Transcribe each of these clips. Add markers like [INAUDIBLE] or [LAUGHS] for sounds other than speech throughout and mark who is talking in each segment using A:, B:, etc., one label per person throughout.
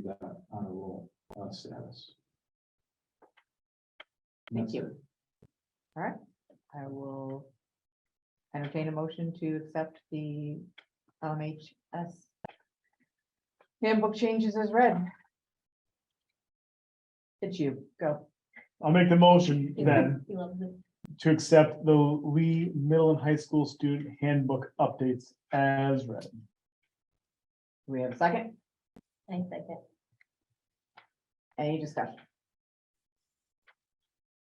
A: that honor roll uh, status.
B: Thank you. All right, I will entertain a motion to accept the LMHS handbook changes as read. It's you, go.
C: I'll make the motion then
B: You love it.
C: to accept the Lee Middle and High School Student Handbook updates as read.
B: Do we have a second?
D: I second.
B: Any discussion?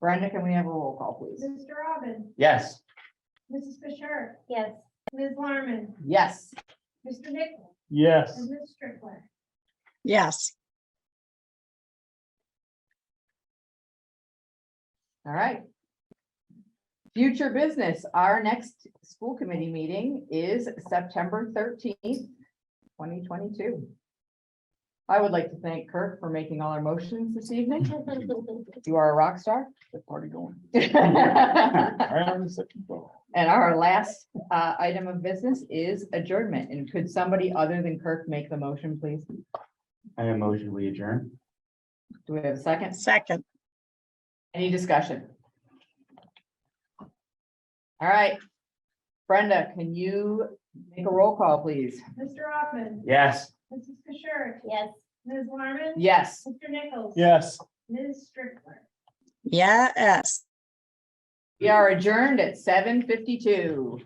B: Brenda, can we have a roll call, please?
D: Mr. Robin,
E: Yes.
D: Mrs. Fisher,
F: Yes,
D: Ms. Larmen,
B: Yes.
D: Mr. Nichols,
C: Yes,
D: and Ms. Strickler.
G: yes,
B: All right. Future business, our next school committee meeting is September thirteenth, twenty twenty-two. I would like to thank Kirk for making all our motions this evening. You are a rock star.
C: the
B: [LAUGHS]
C: party going.
B: And
C: Iron second floor.
B: our last uh, item of business is adjournment. And could somebody other than Kirk make the motion, please?
E: I am motion we adjourn.
B: Do we have a second?
G: second,
B: Any discussion? All right. Brenda, can you make a roll call, please?
D: Mr. Robin,
E: Yes.
D: Mrs. Fisher,
F: yes.
D: Ms. Larmen.
B: Yes.
D: Mr. Nichols.
C: Yes.
D: Ms. Strickler.
G: yes.
B: We are adjourned at seven fifty-two.